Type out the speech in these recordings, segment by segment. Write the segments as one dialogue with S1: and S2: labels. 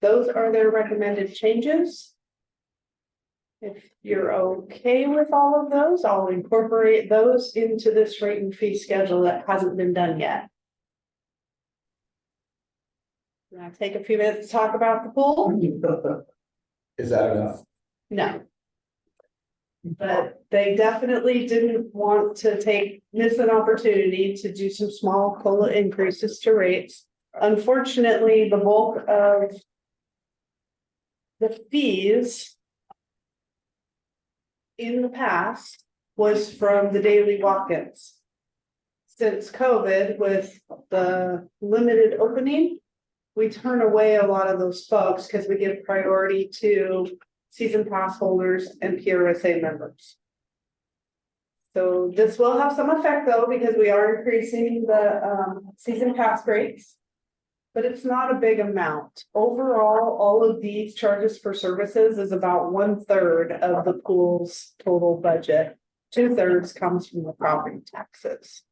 S1: those are their recommended changes. If you're okay with all of those, I'll incorporate those into this rate and fee schedule that hasn't been done yet. And I'll take a few minutes to talk about the pool?
S2: Is that enough?
S1: No. But they definitely didn't want to take, miss an opportunity to do some small COLA increases to rates. Unfortunately, the bulk of the fees in the past was from the daily walk-ins. Since COVID with the limited opening, we turn away a lot of those folks because we give priority to season pass holders and PRSA members. So this will have some effect though, because we are increasing the um season pass rates. But it's not a big amount. Overall, all of these charges for services is about one third of the pool's total budget. Two thirds comes from the property taxes.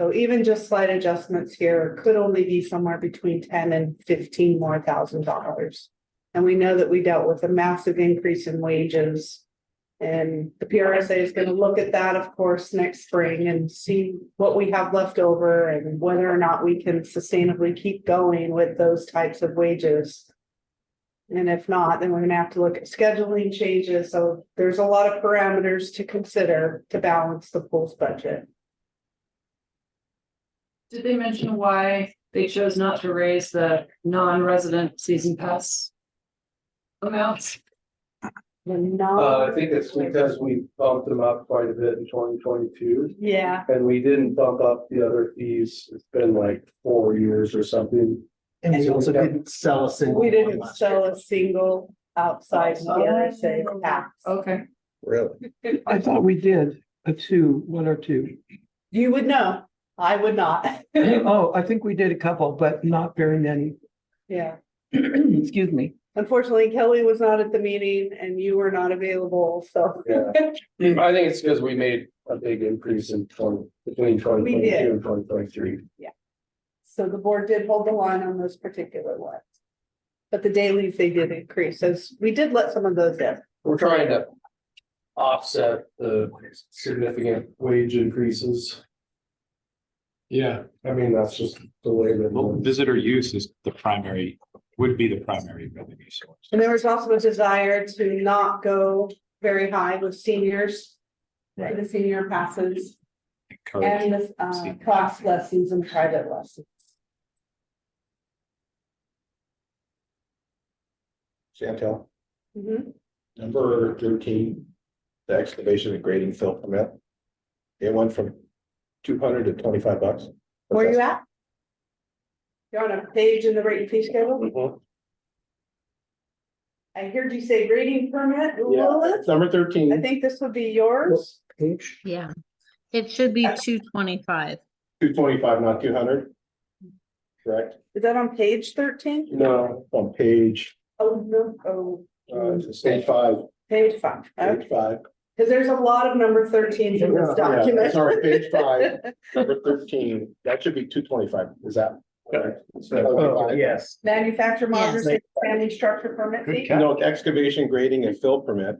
S1: So even just slight adjustments here could only be somewhere between ten and fifteen more thousand dollars. And we know that we dealt with a massive increase in wages. And the PRSA is gonna look at that, of course, next spring and see what we have left over and whether or not we can sustainably keep going with those types of wages. And if not, then we're gonna have to look at scheduling changes, so there's a lot of parameters to consider to balance the pool's budget.
S3: Did they mention why they chose not to raise the non-resident season pass? Amounts?
S2: Uh, I think it's because we bumped them up quite a bit in twenty twenty-two,
S1: Yeah,
S2: and we didn't bump up the other fees, it's been like four years or something.
S4: And
S2: And
S4: we
S2: we
S4: also
S2: got-
S4: didn't sell a single.
S1: we
S4: one
S1: didn't
S4: last year.
S1: sell a single outside PRSA tax.
S3: Okay.
S2: Really?
S5: I thought we did a two, one or two.
S1: You would know, I would not.
S5: Oh, I think we did a couple, but not very many.
S1: Yeah,
S5: Excuse me.
S1: unfortunately Kelly was not at the meeting and you were not available, so.
S2: Yeah, I think it's because we made a big increase in twenty, between twenty twenty-two and twenty twenty-three.
S1: So the board did hold the line on those particular ones. But the dailies they did increase, so we did let some of those in.
S2: We're trying to offset the significant wage increases.
S6: Yeah,
S2: I mean, that's just the way that.
S6: well, visitor use is the primary, would be the primary revenue source.
S1: And there was also a desire to not go very high with seniors. for The senior passes
S6: Encourage.
S1: and the uh class lessons and private lessons.
S2: Chantel,
S1: Mhm.
S2: number thirteen, the excavation and grading fill permit. It went from two hundred to twenty-five bucks.
S1: Where you at? You're on a page in the rate and fee schedule?
S2: Mhm.
S1: I heard you say grading permit,
S2: Yeah,
S1: Lilith.
S2: number
S1: I
S2: thirteen,
S1: think this would be yours.
S5: Page.
S7: Yeah, it should be two twenty-five.
S2: two twenty-five, not two hundred. Correct?
S1: Is that on page thirteen?
S2: No. On page,
S1: Oh, no, oh,
S2: uh, it's page five,
S1: page five.
S2: page five.
S1: Because there's a lot of number thirteens in this
S2: Yeah, yeah,
S1: document.
S2: Sorry, page five, number thirteen, that should be two twenty-five, is that? correct?
S4: Oh,
S2: 225.
S4: yes.
S1: Manufacture
S7: Yes.
S1: modular family structure permit fee.
S2: No, excavation, grading and fill permit,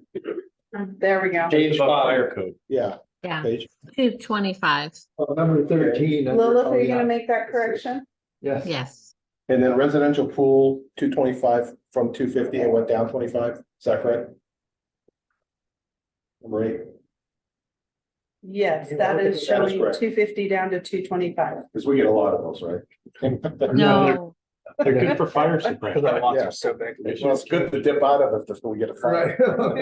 S1: Mm, There we go.
S2: page five,
S6: Fire code.
S2: yeah,
S7: Yeah,
S2: page.
S7: two twenty-five.
S4: Number
S2: 13
S1: Lilith, are you gonna make that correction?
S4: Yes.
S7: Yes,
S2: And then residential pool, two twenty-five from two fifty, it went down twenty-five, is that correct? Number eight,
S1: Yes,
S4: Yeah,
S1: that
S4: okay,
S1: is
S2: that is
S1: showing
S2: correct.
S1: two fifty down to two twenty-five.
S2: because we get a lot of those, right?
S7: no,
S6: They're good for fire
S4: Because our
S6: suppression.
S4: lots
S2: Yeah.
S4: are so big.
S2: Well, it's good to dip out of it if we get a fire.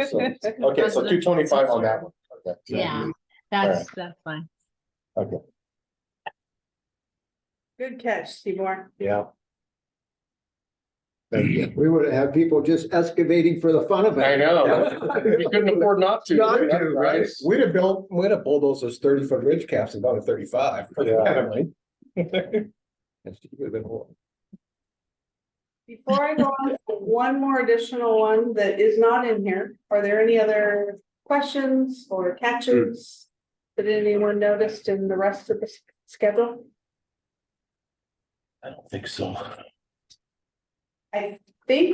S2: So, Okay, so two twenty-five on that one. Okay.
S7: yeah, that's, that's fine.
S1: Good catch, Seymour.
S2: Yeah. Thank you.
S8: We would have people just excavating for the fun of
S2: I
S8: it.
S2: know. We couldn't afford not to.
S8: Not to, right.
S2: We'd have built, we'd have bulldozers thirty foot ridge caps and gone to thirty-five for the family. That's a good one.
S1: Before I go on, one more additional one that is not in here. Are there any other questions or catches? That anyone noticed in the rest of the s- schedule?
S2: I don't think so.
S1: I think